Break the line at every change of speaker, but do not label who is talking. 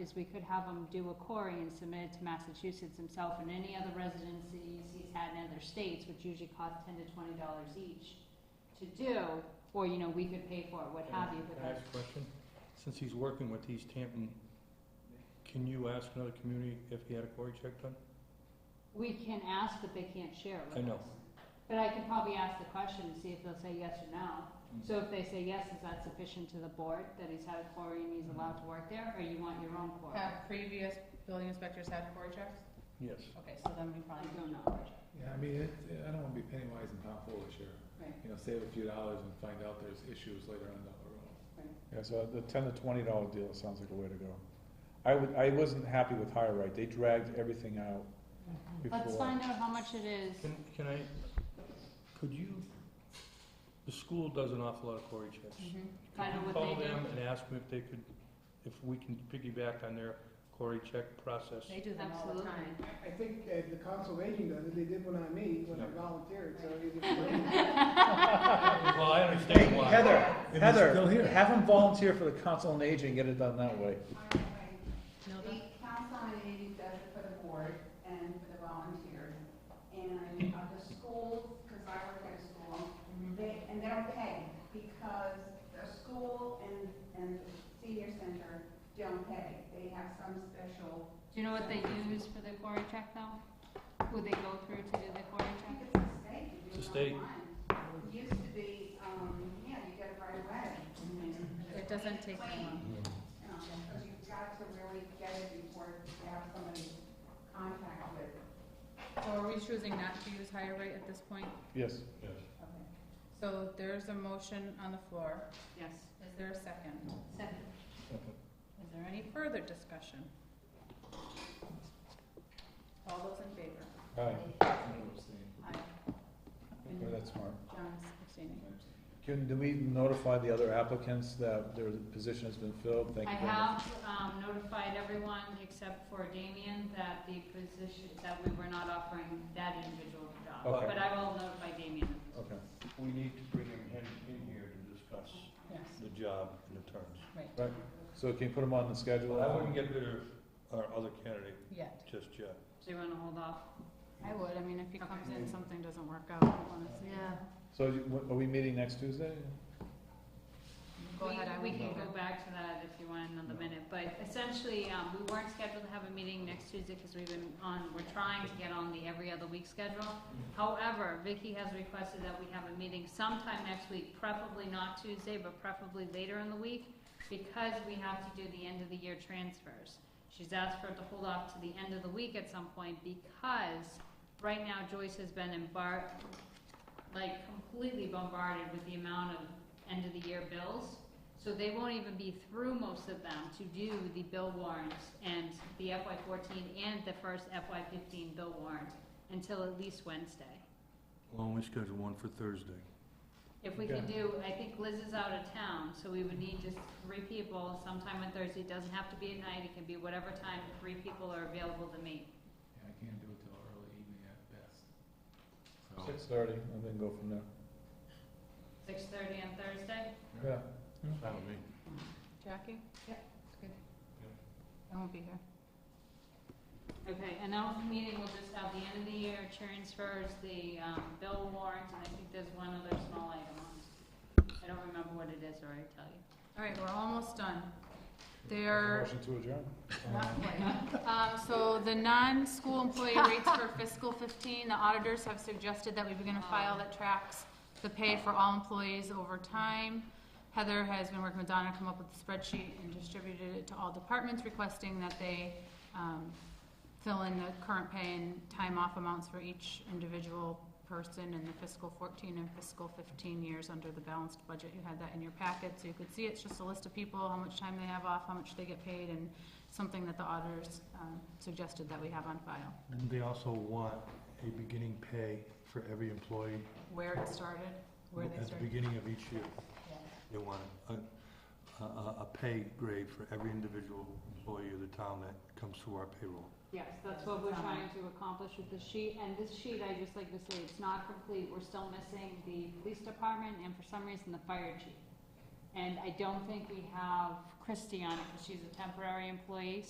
is we could have him do a query and submit it to Massachusetts himself and any other residencies he's had in other states, which usually cost ten to twenty dollars each to do, or, you know, we could pay for it, what have you, but
Can I ask
that's,
a question? Since he's working with East Hampton, can you ask another community if he had a quarry check done?
we can ask, but they can't share it with
I know.
us. But I could probably ask the question and see if they'll say yes or no. So if they say yes, is that sufficient to the board, that he's had a quarry and
Mm-hmm.
he's allowed to work there, or you want your own quarry?
Have previous building inspectors had quarry checks?
Yes.
Okay, so then we
I
probably.
do not.
Yeah, I mean, it, I don't wanna be penny wise and pound foolish here.
Right.
You know, save a few dollars and find out there's issues later on down the road.
Yeah, so the ten to twenty dollar deal sounds like a way to go. I would, I wasn't happy with higher right, they dragged everything out before.
Let's find out how much it is.
Can, can I, could you, the school does an awful lot of quarry checks. Could
Find out Mm-hmm.
you
what they
Call
do.
them and ask them if they could, if we can piggyback on their quarry check process.
They do them all the
Absolutely.
time.
I think uh, the council of aging does it, they did one on me when I
Yeah.
volunteered, so either.
Well, I understand why.
Heather,
they're still here.
Heather, have them volunteer for the council on aging, get it done that way.
No,
The council on aging does it for the board and for the volunteers. And uh, the schools, because I work at a school,
Mm-hmm.
they, and they don't pay because the school and, and the senior center don't pay. They have some special,
Do you know what they use for the quarry check though? Who they go through to do the quarry
I
check?
think it's a state. you do it online. It
It's a state.
Used to be, um, yeah, you get it right away.
It doesn't take
Clean.
that long.
Because you've got to really get it before you have somebody contact with.
So are we choosing not to use higher rate at this point?
Yes.
Yes.
Okay.
So there's a motion on the floor.
Yes.
Is there a second?
Second.
Is there any further discussion? All those in favor?
Aye,
Aye.
Okay, that's smart.
John's abstaining.
Can, do we notify the other applicants that their position has been filled? Thank
I
you very much.
have um, notified everyone except for Damien that the position, that we were not offering that individual a job.
Okay.
But I will notify Damien.
Okay.
We need to bring him in, in here to discuss
Yes,
the job and the terms.
right,
Right, so can you put them on the schedule?
I wouldn't get rid of our other candidate
yet.
just yet.
So you want to hold off?
I would, I mean, if he
comes
in, something doesn't work out, honestly. Yeah.
So you- what- are we meeting next Tuesday?
Go
We-
ahead, I
We
will
can
go.
go back to that if you want another minute, but essentially, um, we weren't scheduled to have a meeting next Tuesday because we've been on, we're trying to get on the every other week schedule.
Mm-hmm.
However, Vicky has requested that we have a meeting sometime next week, preferably not Tuesday, but preferably later in the week, because we have to do the end of the year transfers. She's asked for it to hold off to the end of the week at some point because right now Joyce has been embar- like completely bombarded with the amount of end of the year bills. So they won't even be through most of them to do the bill warrants and the FY fourteen and the first FY fifteen bill warrant until at least Wednesday.
Well, we schedule one for Thursday.
If we can
Okay.
do, I think Liz is out of town, so we would need just three people sometime on Thursday. It doesn't have to be at night, it can be whatever time three people are available to meet.
Yeah, I can't do it till early evening at best. So-
Six thirty, and then go from there.
Six thirty on Thursday?
Yeah.
Jackie?
Yep.
Good. I won't be here.
Okay, and now the meeting will just have the end of the year transfers, the, um, bill warrants, and I think there's one other small item on. I don't remember what it is, or I'd tell you.
All right, we're almost done. There,
Motion to adjourn?
not quite. Um, so the non-school employee rates for fiscal fifteen, the auditors have suggested that we begin a file that tracks the pay for all employees over time. Heather has been working with Donna, to come up with a spreadsheet and distributed it to all departments requesting that they, um, fill in the current pay and time off amounts for each individual person in the fiscal fourteen and fiscal fifteen years under the balanced budget. You had that in your packet, so you could see it's just a list of people, how much time they have off, how much they get paid, and something that the auditors um, suggested that we have on file,
Didn't they also want a beginning pay for every employee
where it started, where they
at the
started.
beginning of each year?
Yeah.
They want a, a, a a pay grade for every individual employee of the town that comes through our payroll.
Yes, that's what we're trying to accomplish with this sheet, and this sheet, I just like to say, it's not complete, we're still missing the police department, and for some reason, the fire chief. And I don't think we have Christie on it, because she's a temporary employee,